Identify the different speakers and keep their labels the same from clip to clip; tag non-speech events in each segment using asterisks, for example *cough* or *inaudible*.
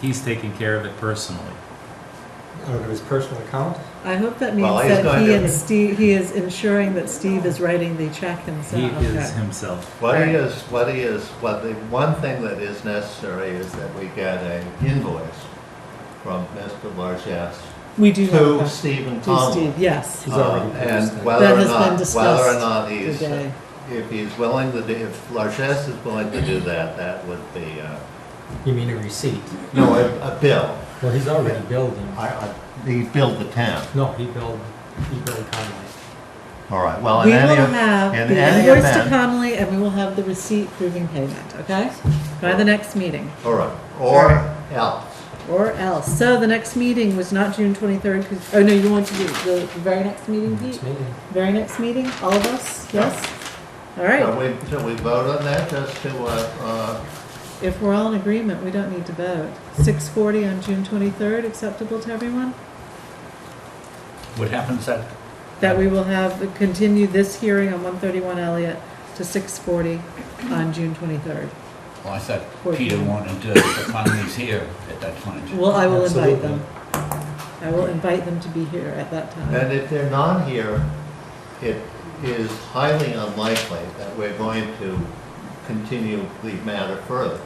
Speaker 1: He's taking care of it personally.
Speaker 2: out of his personal account.
Speaker 3: I hope that
Speaker 4: Well,
Speaker 3: means
Speaker 4: he's
Speaker 3: that
Speaker 4: going
Speaker 3: he
Speaker 4: to-
Speaker 3: and Steve, he is ensuring that Steve is writing the check
Speaker 1: He
Speaker 3: himself.
Speaker 1: is himself.
Speaker 4: What is, what is, what the, one thing that is necessary is that we get an invoice from Mr. Largess
Speaker 3: We do have
Speaker 4: to
Speaker 3: that.
Speaker 4: Stephen
Speaker 3: To
Speaker 4: Tomlin.
Speaker 3: Steve, yes,
Speaker 2: He's
Speaker 4: Um,
Speaker 2: already produced
Speaker 4: And
Speaker 2: it.
Speaker 4: whether
Speaker 3: That
Speaker 4: or
Speaker 3: has been
Speaker 4: not, whether or
Speaker 3: discussed
Speaker 4: not he's,
Speaker 3: today.
Speaker 4: if he's willing to do, if Largess is willing to do that, that would be, uh,
Speaker 2: You mean a receipt?
Speaker 4: no, a, a bill.
Speaker 2: Well, he's already billed him.
Speaker 4: I, I, he billed the town.
Speaker 2: No, he billed, he billed Conway.
Speaker 4: All right, well, uh, in
Speaker 3: We will
Speaker 4: any,
Speaker 3: have the
Speaker 4: in any
Speaker 3: invoice to
Speaker 4: event,
Speaker 3: Connolly and we will have the receipt proving payment, okay? By the next meeting,
Speaker 4: all right, or else.
Speaker 3: or else. So the next meeting was not June twenty-third, because, oh no, you want to do the very next meeting,
Speaker 2: Next
Speaker 3: Pete?
Speaker 2: meeting.
Speaker 3: Very next meeting, all of us, yes? All
Speaker 4: Shall
Speaker 3: right,
Speaker 4: we, shall we vote on that just to, uh, uh,
Speaker 3: if we're all in agreement, we don't need to vote. Six forty on June twenty-third, acceptable to everyone?
Speaker 5: What happens at,
Speaker 3: That we will have, continue this hearing on one thirty-one Elliott to six forty on June twenty-third.
Speaker 5: well, I thought
Speaker 3: What?
Speaker 5: Peter wanted to, the Conley's here at that point.
Speaker 3: Well, I will invite
Speaker 2: Absolutely.
Speaker 3: them. I will invite them to be here at that time.
Speaker 4: And if they're not here, it is highly unlikely that we're going to continue the matter further.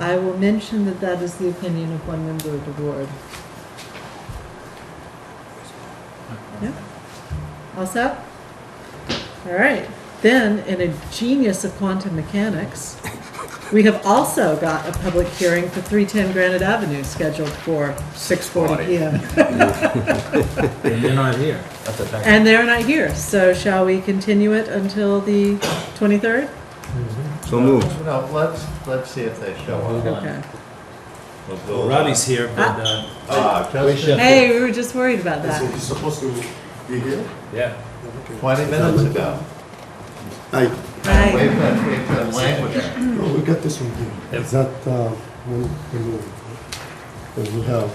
Speaker 3: I will mention that that is the opinion of one member of the board. Yep. All set? All right, then, in a genius of quantum mechanics, we have also got a public hearing for 310 Granite Avenue scheduled for 6:40 PM.
Speaker 2: And
Speaker 1: *laughs*
Speaker 2: they're not here.
Speaker 3: And they're not here, so shall we continue it until the 23rd?
Speaker 6: So moved.
Speaker 4: No, let's, let's see if they show up.
Speaker 3: Okay.
Speaker 4: We'll go-
Speaker 1: Well, Robbie's here, but, uh,
Speaker 4: Ah,
Speaker 2: We
Speaker 4: just
Speaker 2: should-
Speaker 3: Hey, we were just worried about
Speaker 7: So
Speaker 3: that.
Speaker 7: he's supposed to be here?
Speaker 1: yeah.
Speaker 4: twenty minutes ago.
Speaker 7: I,
Speaker 4: And
Speaker 3: Right.
Speaker 4: We've been, we've been languishing.
Speaker 7: no, we got this one here.
Speaker 1: Yep.
Speaker 7: Is that, uh, when we move? Then we have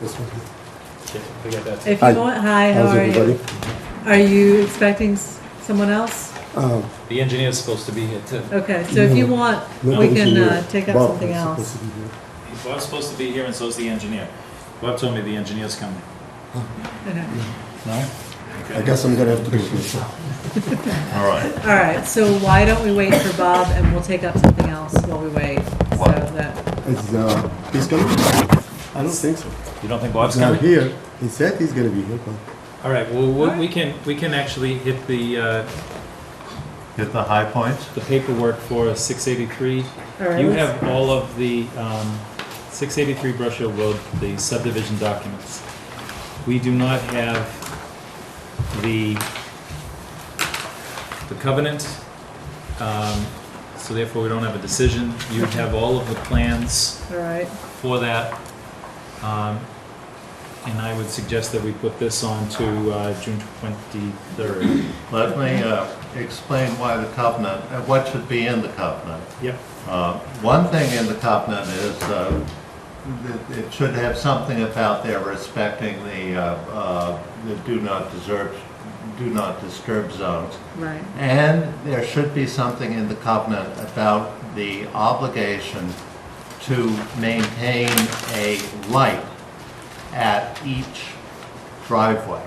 Speaker 7: this one here.
Speaker 3: If
Speaker 7: Hi.
Speaker 3: you want, hi, how
Speaker 7: How's
Speaker 3: are you?
Speaker 7: everybody?
Speaker 3: Are you expecting s- someone else?
Speaker 7: Um,
Speaker 1: The engineer's supposed to be here too.
Speaker 3: Okay, so if you want, we
Speaker 7: nobody's
Speaker 3: can
Speaker 7: here.
Speaker 3: uh, take up
Speaker 7: Bob
Speaker 3: something
Speaker 7: is
Speaker 3: else.
Speaker 7: supposed to be here.
Speaker 1: Bob's supposed to be here and so's the engineer. Bob told me the engineer's coming.
Speaker 3: Okay.
Speaker 7: I guess I'm gonna have to do this.
Speaker 4: All right.
Speaker 3: All right, so why don't we wait for Bob and we'll take up something else while we wait? So
Speaker 4: What?
Speaker 3: that,
Speaker 7: Is, uh, he's coming? I don't think so.
Speaker 1: You don't think Bob's
Speaker 7: He's not
Speaker 1: coming?
Speaker 7: here. He said he's gonna be here, but.
Speaker 1: All right, well, we- we can, we can actually hit the, uh,
Speaker 4: Hit the high points.
Speaker 1: the paperwork for 683.
Speaker 3: all right.
Speaker 1: You
Speaker 3: let's-
Speaker 1: have all of the um, 683 Brush Hill Road, the subdivision documents. We do not have the, the covenant, um, so therefore we don't have a decision. You have all of the plans
Speaker 3: All right,
Speaker 1: for that. um, And I would suggest that we put this on to uh, June 23rd.
Speaker 4: Let me, uh, explain why the covenant, uh, what should be in the covenant.
Speaker 1: Yep.
Speaker 4: Uh, One thing in the covenant is uh, that it should have something about there respecting the, uh, uh, the do not disturb, do not disturb zones.
Speaker 3: right.
Speaker 4: And there should be something in the covenant about the obligation to maintain a light at each driveway.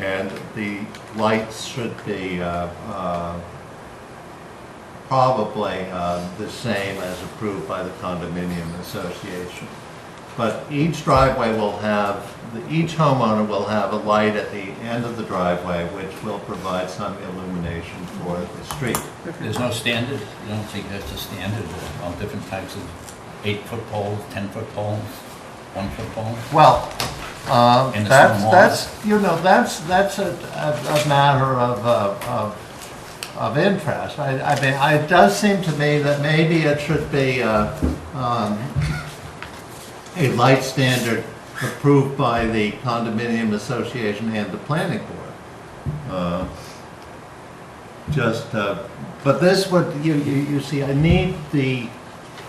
Speaker 4: And the lights should be uh, uh, probably uh, the same as approved by the condominium association. But each driveway will have, each homeowner will have a light at the end of the driveway, which will provide some illumination for the street.
Speaker 5: There's no standard, you don't think that's a standard, all different types of eight-foot poles, ten-foot poles, one-foot poles?
Speaker 4: Well, uh,
Speaker 5: And the
Speaker 4: that's,
Speaker 5: stone
Speaker 4: that's, you know, that's, that's a, a a matter of, uh, of, of interest. I, I mean, I- it does seem to me that maybe it should be, uh, um, a light standard approved by the condominium association and the planning board. Uh, Just, uh, but this would, you, you, you see, I need the,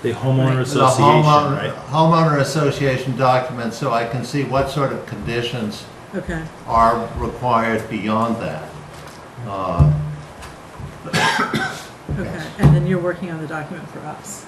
Speaker 1: The homeowner
Speaker 4: the
Speaker 1: association,
Speaker 4: homeowner-
Speaker 1: right?
Speaker 4: Homeowner association document, so I can see what sort of conditions
Speaker 3: Okay,
Speaker 4: are required beyond that. Uh,
Speaker 3: okay. And then you're working on the document for us.